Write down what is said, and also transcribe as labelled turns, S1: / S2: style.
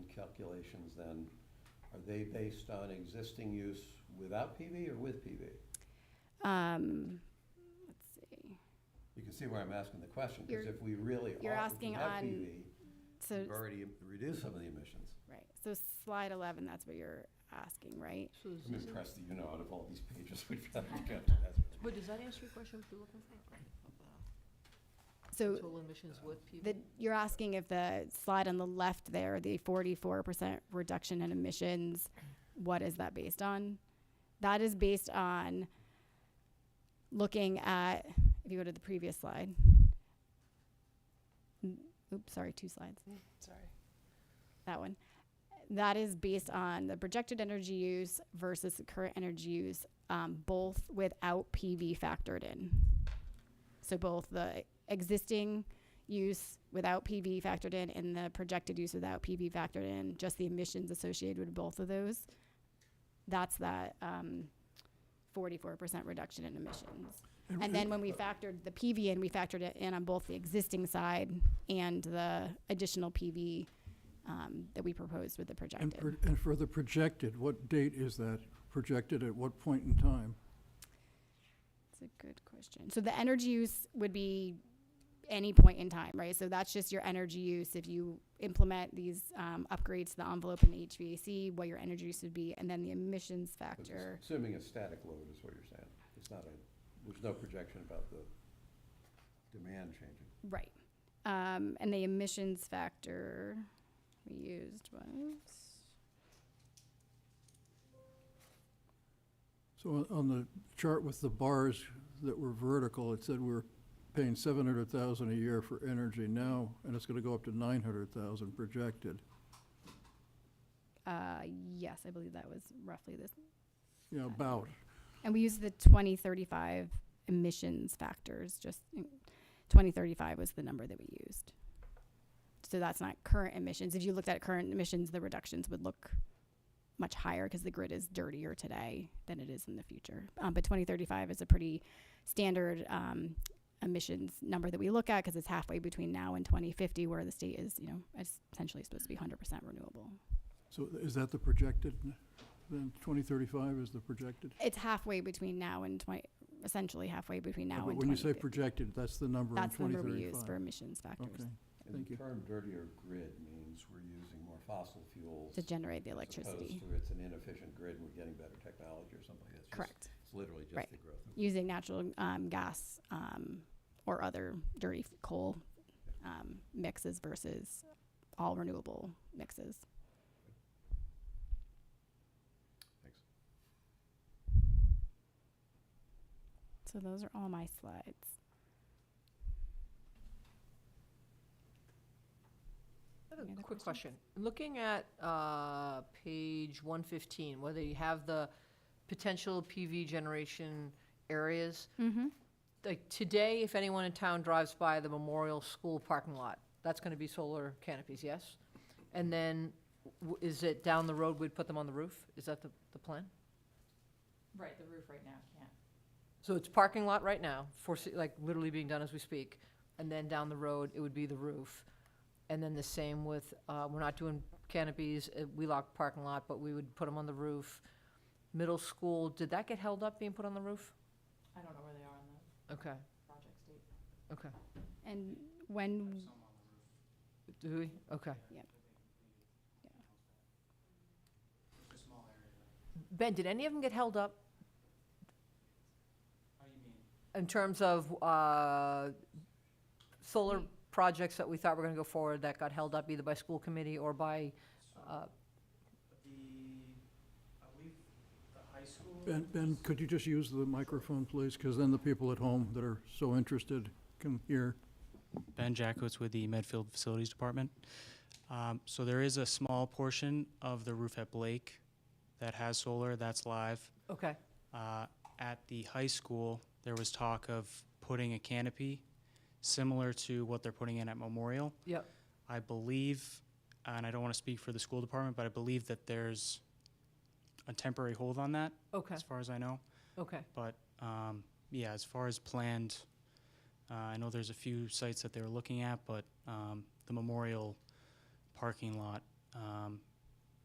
S1: calculations then, are they based on existing use without PV or with PV?
S2: Um, let's see.
S1: You can see where I'm asking the question, because
S2: You're-
S1: if we really
S2: you're
S1: are
S2: asking
S1: without
S2: on-
S1: PV,
S2: So,
S1: we've already reduced some of the emissions.
S2: right, so slide eleven, that's what you're asking, right?
S3: So is
S1: I'm
S3: this a-
S1: impressed that you know out of all these pages we've got to get to that.
S3: But does that answer your question, what you're looking for?
S2: So
S3: Total emissions with people?
S2: the, you're asking if the slide on the left there, the forty-four percent reduction in emissions, what is that based on? That is based on looking at, if you go to the previous slide. Mm, Oops, sorry, two slides.
S3: Mm, Sorry.
S2: that one. That is based on the projected energy use versus the current energy use, um, both without PV factored in. So both the existing use without PV factored in and the projected use without PV factored in, just the emissions associated with both of those. That's that um, 44% reduction in emissions. And then when
S4: uh,
S2: we factored the PV in, we factored it in on both the existing side and the additional PV um, that we proposed with the
S4: And,
S2: projected.
S4: pro- and for the projected, what date is that projected at what point in time?
S2: It's a good question. So the energy use would be any point in time, right? So that's just your energy use. If you implement these um, upgrades to the envelope and the HVAC, what your energy use would be, and then the emissions
S1: But just
S2: factor.
S1: Assuming a static load is what you're saying. It's not a, there's no projection about the demand changing.
S2: Right. Um, and the emissions factor we used was,
S4: So on- on the chart with the bars that were vertical, it said we were paying seven hundred thousand a year for energy now, and it's gonna go up to nine hundred thousand projected.
S2: uh, yes, I believe that was roughly this.
S4: You know, about,
S2: And we used the 2035 emissions factors, just in- 2035 was the number that we used. So that's not current emissions. If you looked at current emissions, the reductions would look much higher because the grid is dirtier today than it is in the future. Um, but 2035 is a pretty standard um, emissions number that we look at because it's halfway between now and 2050, where the state is, you know, it's essentially supposed to be 100% renewable.
S4: so is that the projected? Then twenty thirty-five is the projected?
S2: It's halfway between now and 20, essentially halfway between
S4: Yeah,
S2: now
S4: But
S2: and
S4: when you say
S2: 2050.
S4: projected, that's the number in
S2: That's the
S4: twenty
S2: number
S4: thirty-five?
S2: we use for emissions factors
S4: Okay,
S1: And
S4: Thank
S1: the
S4: you.
S1: term dirtier grid means we're using more fossil fuels.
S2: to generate the
S1: As
S2: electricity.
S1: opposed to it's an inefficient grid and we're getting better technology or something like that. It's just-
S2: Correct.
S1: It's literally just
S2: Right.
S1: the growth. of-
S2: Using natural um, gas um, or other dirty f- coal um, mixes versus all renewable mixes.
S1: Thanks.
S2: So those are all my slides.
S3: I have
S2: Any
S3: a
S2: other
S3: quick
S2: questions?
S3: question. Looking at uh, page 115, whether you have the potential PV generation areas,
S2: Mm-hmm.
S3: like today, if anyone in town drives by the Memorial School parking lot, that's going to be solar canopies, yes? And then w- is it down the road, we'd put them on the roof? Is that the, the plan?
S5: Right, the roof right now can't.
S3: So it's parking lot right now, for, like, literally being done as we speak, and then down the road, it would be the roof. And then the same with, uh, we're not doing canopies, uh, we lock parking lot, but we would put them on the roof. Middle school, did that get held up being put on the roof?
S5: I don't know where they are on the
S3: Okay,
S5: project state.
S3: okay.
S2: And when
S3: Do we? Okay.
S2: Yep.
S3: Ben, did any of them get held up
S6: How do you mean?
S3: in terms of, uh, solar projects that we thought were gonna go forward that got held up either by school committee or by, uh,
S6: The, I believe, the high school.
S4: Ben, Ben, could you just use the microphone, please? Because then the people at home that are so interested can hear.
S7: Ben Jackowitz with the Medfield Facilities Department. Um, So there is a small portion of the roof at Blake that has solar, that's live.
S3: okay.
S7: Uh, At the high school, there was talk of putting a canopy similar to what they're putting in at Memorial.
S3: Yep.
S7: I believe, and I don't want to speak for the school department, but I believe that there's a temporary hold on that,
S3: Okay,
S7: as far as I know.
S3: okay.
S7: But um, yeah, as far as planned, uh, I know there's a few sites that they were looking at, but um, the memorial parking lot, um,